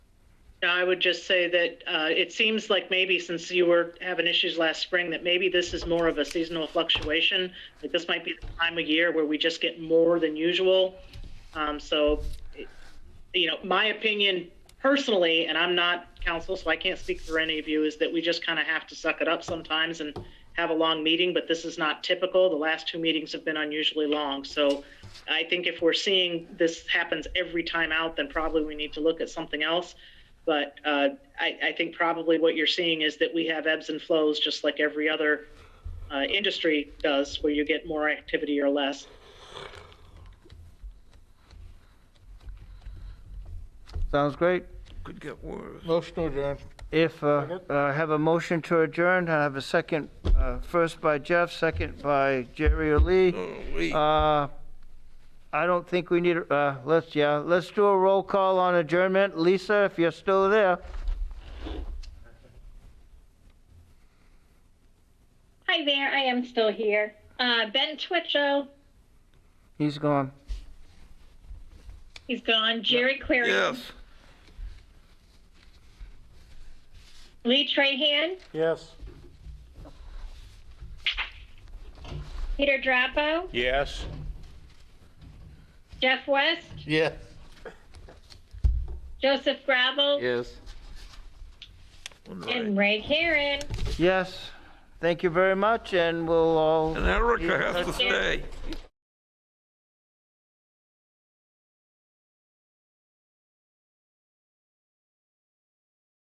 No, I would just say that uh, it seems like maybe since you were having issues last spring, that maybe this is more of a seasonal fluctuation. Like this might be the time of year where we just get more than usual. Um, So, it- you know, my opinion personally, and I'm not counsel, so I can't speak for any of you, is that we just kind of have to suck it up sometimes and have a long meeting, but this is not typical. The last two meetings have been unusually long. So I think if we're seeing this happens every time out, then probably we need to look at something else. But uh, I, I think probably what you're seeing is that we have ebbs and flows, just like every other uh, industry does, where you get more activity or less. Sounds great. Could get worse. Motion to adjourn. If, uh, uh, have a motion to adjourn, I have a second, uh, first by Jeff, second by Jerry or Lee. Oh, wait. Uh, I don't think we need, uh, let's, yeah, let's do a roll call on adjournment. Lisa, if you're still there. Hi there, I am still here. Uh, ben Twitchell, He's gone. he's gone. Jerry Clary, Yes. Lee Trahan, Yes. Peter Drapo, Yes. Jeff West, Yes. Joseph Gravel, Yes. Right. and Ray Karen. Yes, thank you very much, and we'll all. And Erica has to stay.